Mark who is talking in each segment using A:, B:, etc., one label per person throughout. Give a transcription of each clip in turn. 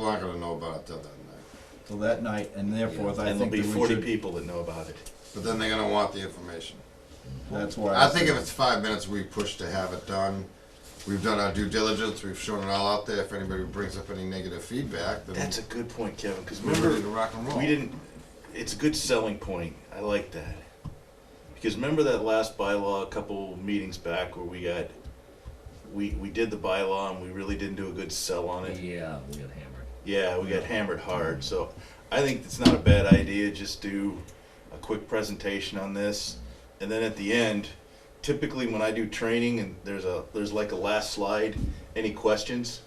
A: We're not gonna know about it till that night.
B: till that night, and therefore, I
C: And there'll
B: think
C: be
B: that we
C: forty
B: should-
C: people that know about it.
A: But then they're gonna want the information.
B: That's why.
A: I think if it's five minutes, we push to have it done. We've done our due diligence, we've shown it all out there. If anybody brings up any negative feedback, then
C: That's a good point, Kevin, because
A: we're ready to
C: remember,
A: rock and roll.
C: we didn't, it's a good selling point. I like that. Because remember that last bylaw a couple meetings back where we got, we, we did the bylaw and we really didn't do a good sell on it?
D: Yeah, we got hammered.
C: Yeah, we got hammered hard, so I think it's not a bad idea, just do a quick presentation on this. And then at the end, typically when I do training and there's a, there's like a last slide, any questions?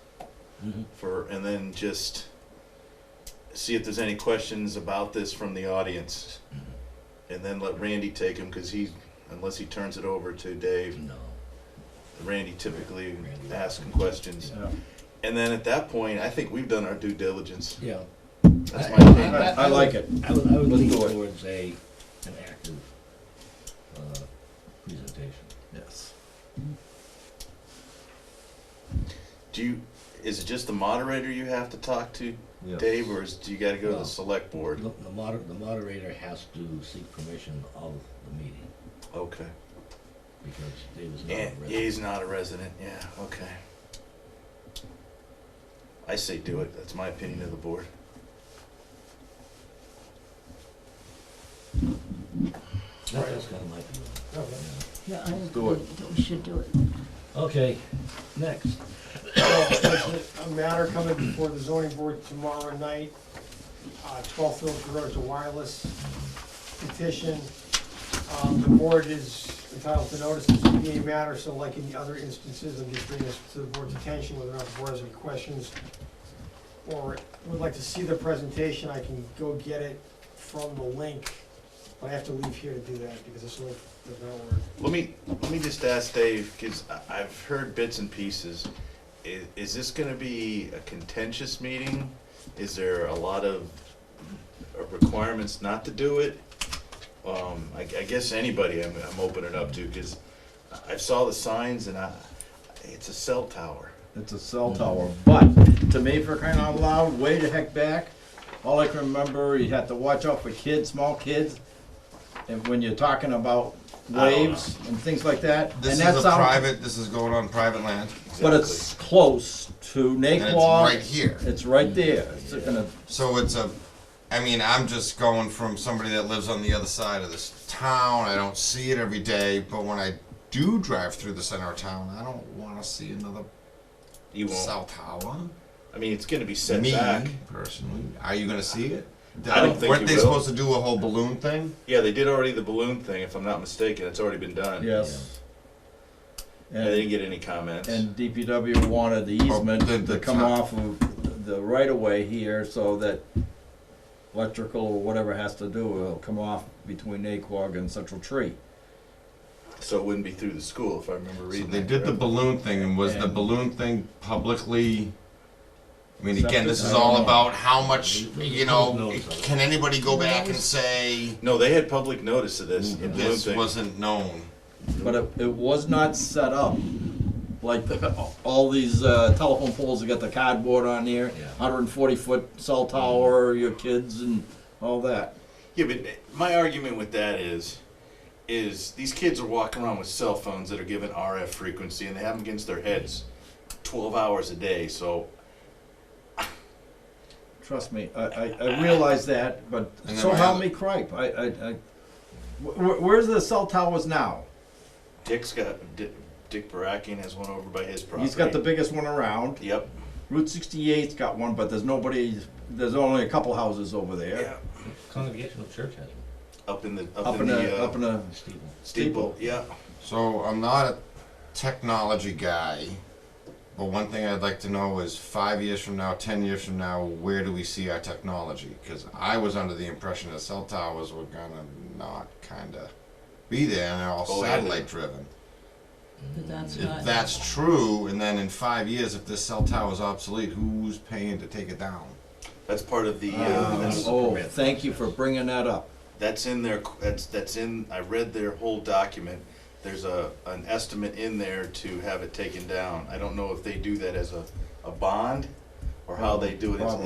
C: For, and then just see if there's any questions about this from the audience. And then let Randy take them, cause he, unless he turns it over to Dave,
D: No.
C: Randy typically
D: Randy.
C: asks him questions.
B: Yeah.
C: And then at that point, I think we've done our due diligence.
D: Yeah.
C: That's my opinion.
D: I-
B: I like it.
D: I would, I would
B: Let's
D: lean
B: do it.
D: towards a, an active, uh, presentation.
B: Yes.
C: Do you, is it just the moderator you have to talk to,
B: Yeah.
C: Dave, or is, do you gotta go to
D: No.
C: the select board?
D: Look, the moder, the moderator has to seek permission of the meeting,
C: Okay.
D: because Dave is not
C: Yeah,
D: a
C: yeah,
D: resident.
C: he's not a resident, yeah, okay. I say do it, that's my opinion of the board.
D: That- That's kinda my feeling.
E: Yeah, I agree
B: Do it.
E: that we should do it.
D: Okay, next.
F: A matter coming before the zoning board tomorrow night, uh, 12 Phillips Road is a wireless petition. Um, The board is entitled to notice this ZBA matter, so like in the other instances, I'm just bringing this to the board's attention, whether or not the board has any questions or would like to see the presentation, I can go get it from the link, but I have to leave here to do that because this link does not work.
C: Let me, let me just ask Dave, cause I, I've heard bits and pieces. I, is this gonna be a contentious meeting? Is there a lot of uh, requirements not to do it? Um, I, I guess anybody I'm, I'm opening up to, cause I- I saw the signs and I, it's a cell tower.
B: It's a cell tower, but to me, for crying out loud, way the heck back, all I can remember, you had to watch out for kids, small kids. And when you're talking about waves and things like that, and
A: This
B: that's
A: is a
B: out-
A: private, this is going on private land,
B: But it's close to
A: and it's
B: Naquan.
A: right here.
B: It's right there. It's gonna-
A: So it's a, I mean, I'm just going from somebody that lives on the other side of this town. I don't see it every day, but when I do drive through the center of town, I don't want to see another
C: You won't,
A: cell tower.
C: I mean, it's gonna be set
A: Me
C: back.
A: personally, are you going to see it?
C: I don't think
A: Weren't
C: you
A: they
C: will.
A: supposed to do a whole balloon thing?
C: Yeah, they did already the balloon thing, if I'm not mistaken, it's already been done.
B: Yes.
C: I
B: And-
C: didn't get any comments.
B: And DPW wanted the easement
A: the- the
B: to come
A: top.
B: off of the right of way here so that electrical or whatever has to do will come off between Naquag and Central Tree.
C: So it wouldn't be through the school, if I remember
A: So
C: reading
A: they
C: that
A: did the
C: correctly.
A: balloon thing, and was the
B: And-
A: balloon thing publicly? I mean, again,
B: Accepted?
A: this
B: I
A: is
B: don't
A: all
B: know.
A: about how much,
D: There's-
A: you
D: there's no
A: know,
D: notice of it.
A: can anybody go back and say,
C: No, they had public notice of this.
B: Mm-hmm.
C: the balloon
A: this
C: thing.
A: wasn't known?
B: But it, it was not set up like all these uh, telephone poles that got the cardboard on there,
D: Yeah.
B: hundred and forty foot cell tower, your kids and all that.
C: Yeah, but my argument with that is, is these kids are walking around with cell phones that are given RF frequency and they have them against their heads, twelve hours a day. So
B: Trust me, I, I, I realize that, but
A: And then
B: so
A: my
B: help
A: other-
B: me cripe, I, I, I, wh- wh- where's the cell towers now?
C: Dick's got Dick, Dick Barakian has one over by his property.
B: He's got the biggest one around.
C: Yep.
B: Route 68's got one, but there's nobody, there's only a couple houses over there.
D: Congregational church has one,
C: Up in the up,
B: Up in
C: the
B: a,
C: uh,
B: up in a,
D: Stephen.
C: steeple. Yeah.
A: So I'm not a technology guy, but one thing I'd like to know is five years from now, ten years from now, where do we see our technology? Because I was under the impression that cell towers were gonna not kinda be there, and they're all
C: Oh, yeah, they-
A: satellite driven.
E: But that's
A: If
E: not,
A: that's true, and then in five years, if this cell tower is obsolete, who's paying to take it down?
C: That's part of the. Uh,
B: Uh,
C: that's,
B: oh, thank you for bringing that up.
C: that's in their. That's that's in. I read their whole document. There's a an estimate in there to have it taken down. I don't know if they do that as a, a bond, or how they do it. It's-